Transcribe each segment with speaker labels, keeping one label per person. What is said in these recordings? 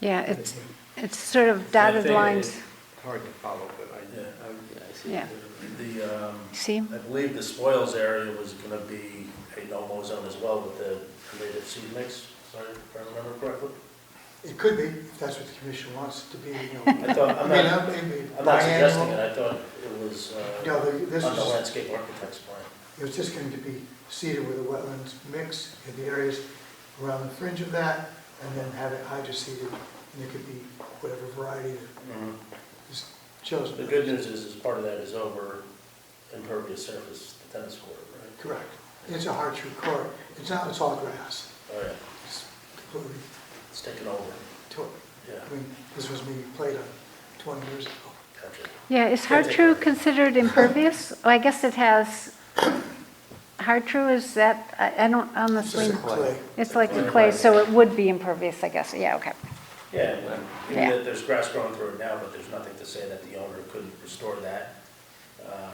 Speaker 1: Yeah, it's, it's sort of dotted
Speaker 2: Yeah, I think it
Speaker 1: lines,
Speaker 2: is.
Speaker 3: Hard to follow, but
Speaker 2: Yeah.
Speaker 3: I, I'm-
Speaker 1: yeah.
Speaker 2: The, um,
Speaker 1: See?
Speaker 2: I believe the spoils area was gonna be a no-mow zone as well with the native seed mix, sorry, if I remember correctly.
Speaker 4: It could be, if that's what the commission wants it to be, you know.
Speaker 2: I thought,
Speaker 4: I
Speaker 2: I'm
Speaker 4: mean,
Speaker 2: not,
Speaker 4: I'm, maybe
Speaker 2: I'm not suggesting it,
Speaker 4: biannual.
Speaker 2: I thought it was, uh,
Speaker 4: No, the- this
Speaker 2: on the
Speaker 4: was,
Speaker 2: landscape architect's plan.
Speaker 4: it was just going to be seeded with a wetlands mix in the areas around the fringe of that, and then have it hydroseeded, and it could be whatever variety is chosen.
Speaker 2: The good news is, is part of that is over impervious surface, the tennis court, right?
Speaker 4: Correct. It's a hard true court. It's not, it's all grass.
Speaker 2: Oh, yeah,
Speaker 4: It's completely,
Speaker 2: it's taken over,
Speaker 4: to-
Speaker 2: yeah,
Speaker 4: I mean, this was maybe played on 20 years ago.
Speaker 2: gotcha.
Speaker 1: Yeah, is Hartrue considered impervious? Oh, I guess it has, Hartrue is that, I I don't
Speaker 4: It's just
Speaker 1: honestly,
Speaker 4: a clay.
Speaker 1: it's like the clay, so it would be impervious, I guess, yeah, okay.
Speaker 2: Yeah, and even
Speaker 1: Yeah.
Speaker 2: that there's grass growing through it now, but there's nothing to say that the owner couldn't restore that. um,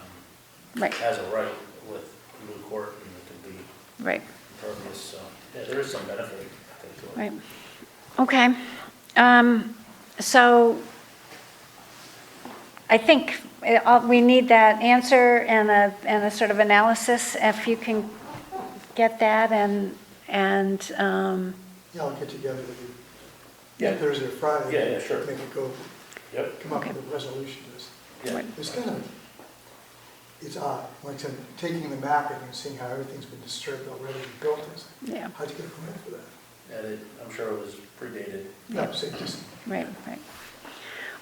Speaker 1: Right,
Speaker 2: Has a right with new court, and it can be
Speaker 1: right,
Speaker 2: impervious, so, yeah, there is some benefit, I think, to it.
Speaker 1: right. Okay, um, so I think it all- we need that answer and a, and a sort of analysis, if you can get that and, and, um,
Speaker 4: Yeah, I'll get together with you
Speaker 2: Yeah.
Speaker 4: Thursday or Friday.
Speaker 2: Yeah, yeah, sure.
Speaker 4: Make it go,
Speaker 2: Yep,
Speaker 4: come up
Speaker 1: Okay.
Speaker 4: with a resolution to this.
Speaker 2: yeah,
Speaker 4: It's kind of, it's odd, like I said, taking the mapping and seeing how everything's been disturbed already and built, it's
Speaker 1: yeah,
Speaker 4: like, how'd you get a permit for that?
Speaker 2: and it, I'm sure it was predated.
Speaker 4: No, so it just,
Speaker 1: right, right.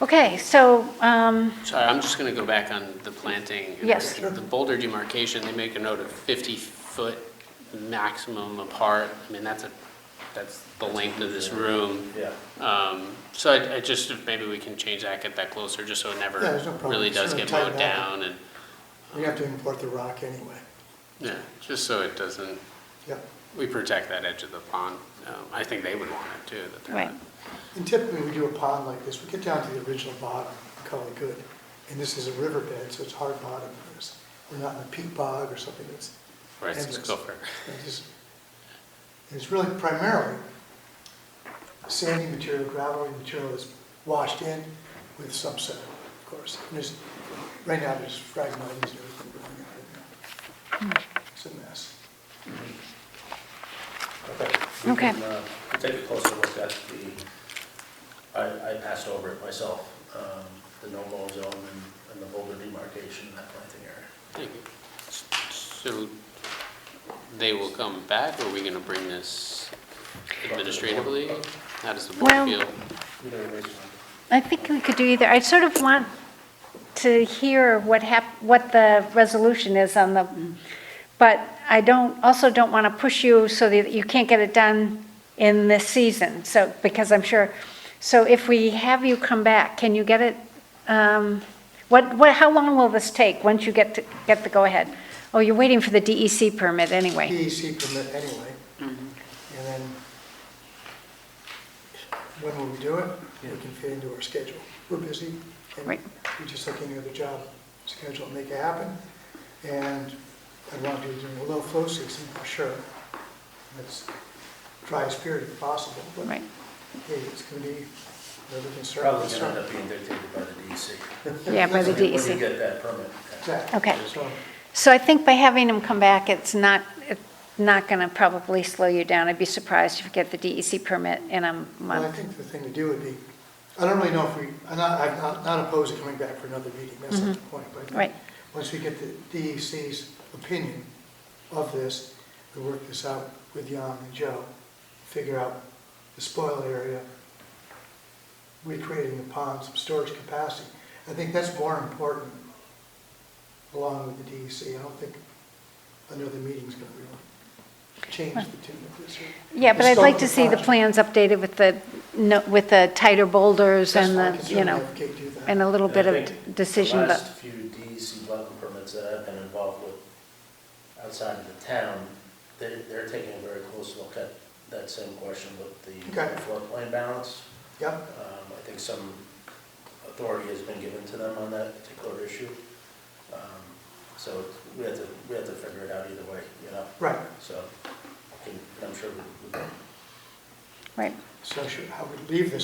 Speaker 1: Okay, so, um,
Speaker 5: Sorry, I'm just going to go back on the planting.
Speaker 1: Yes.
Speaker 5: The boulder demarcation, they make a note of 50-foot maximum apart. I mean, that's a, that's the length of this room.
Speaker 2: Yeah,
Speaker 5: Um, So I I just, if maybe we can change that, get that closer, just so it never
Speaker 4: Yeah, there's no problem.
Speaker 5: really
Speaker 4: Sort
Speaker 5: does
Speaker 4: of
Speaker 5: get
Speaker 4: tighten
Speaker 5: mowed
Speaker 4: that
Speaker 5: down and,
Speaker 4: we have to import the rock anyway.
Speaker 5: yeah, just so it doesn't,
Speaker 4: Yep.
Speaker 5: we protect that edge of the pond. Um, I think they would want it too, that they're
Speaker 1: right,
Speaker 5: not
Speaker 4: And typically, we do a pond like this, we get down to the original bottom, we call it good. And this is a riverbed, so it's hard bottom for us. We're not in a peat bog or something that's,
Speaker 5: Right, it's
Speaker 4: Endless.
Speaker 5: gopher.
Speaker 4: that just, it's really primarily sandy material, gravelly material that's washed in with some sediment, of course. And there's, right now, there's fragmites and everything going on. It's a mess.
Speaker 2: okay. We
Speaker 1: Okay.
Speaker 2: can, uh, we'll Take a closer look at the, I, I passed over it myself, um, the no-mow zone and, and the boulder demarcation, that planting area.
Speaker 5: Thank you. So they will come back, or are we going to bring this administratively? How does the
Speaker 1: Well-
Speaker 5: board feel?
Speaker 2: Either way, it's-
Speaker 1: I think we could do either. I sort of want to hear what hap, what the resolution is on the, but I don't, also don't want to push you so that you can't get it done in this season, so, because I'm sure, so if we have you come back, can you get it? um, What, what, how long will this take, once you get to, get the go-ahead? Oh, you're waiting for the DEC permit anyway.
Speaker 4: DEC E permit anyway.
Speaker 1: Mm-hmm.
Speaker 4: And then, when will we do it? We can fit into our schedule. We're busy. and
Speaker 1: Right.
Speaker 4: We're just like any other job, schedule, and make it happen. And I want to do it during a low flow season, for sure. That's driest period if possible, but
Speaker 1: Right,
Speaker 4: hey, it's going to be another concern.
Speaker 2: Probably gonna end up being dictated by the DEC.
Speaker 1: yeah, by the E
Speaker 2: When you- When you
Speaker 1: DEC.
Speaker 2: get that permit.
Speaker 4: Exactly.
Speaker 1: Okay.
Speaker 4: So,
Speaker 1: So I think by having them come back, it's not, it's not going to probably slow you down. I'd be surprised if you get the DEC permit in a
Speaker 4: Well, I
Speaker 1: month.
Speaker 4: think the thing to do would be, I don't really know if we, I'm not, I'm not- not opposed to coming back for another meeting, that's not the point, but. I think
Speaker 1: Mm-hmm. Right.
Speaker 4: Once we get the DEC's opinion of this, we work this out with Jan and Joe, figure out the spoil area, recreating the pond, some storage capacity. I think that's more important along with the DEC. I don't think another meeting's gonna really change the tune of this. or
Speaker 1: Yeah, but
Speaker 4: the
Speaker 1: I'd
Speaker 4: scope
Speaker 1: like
Speaker 4: of
Speaker 1: to see the
Speaker 4: project.
Speaker 1: plans updated with the, no- with the tighter boulders
Speaker 4: That's
Speaker 1: and the, uh,
Speaker 4: fine,
Speaker 1: you
Speaker 4: certainly
Speaker 1: know,
Speaker 4: have Kate do that.
Speaker 1: and a little
Speaker 2: And I
Speaker 1: bit of
Speaker 2: think
Speaker 1: d- decision,
Speaker 2: The
Speaker 1: but,
Speaker 2: last few DEC wetland permits that I've been involved with outside of the town, they're, they're taking a very close look at that same question with the
Speaker 4: Okay.
Speaker 2: floodplain balance. Um,
Speaker 4: Yep,
Speaker 2: I think some authority has been given to them on that particular issue. Um, So we have to, we have to figure it out either way, you know,
Speaker 4: right.
Speaker 2: so I can- I'm sure we we can
Speaker 1: right.
Speaker 4: So should, I would leave this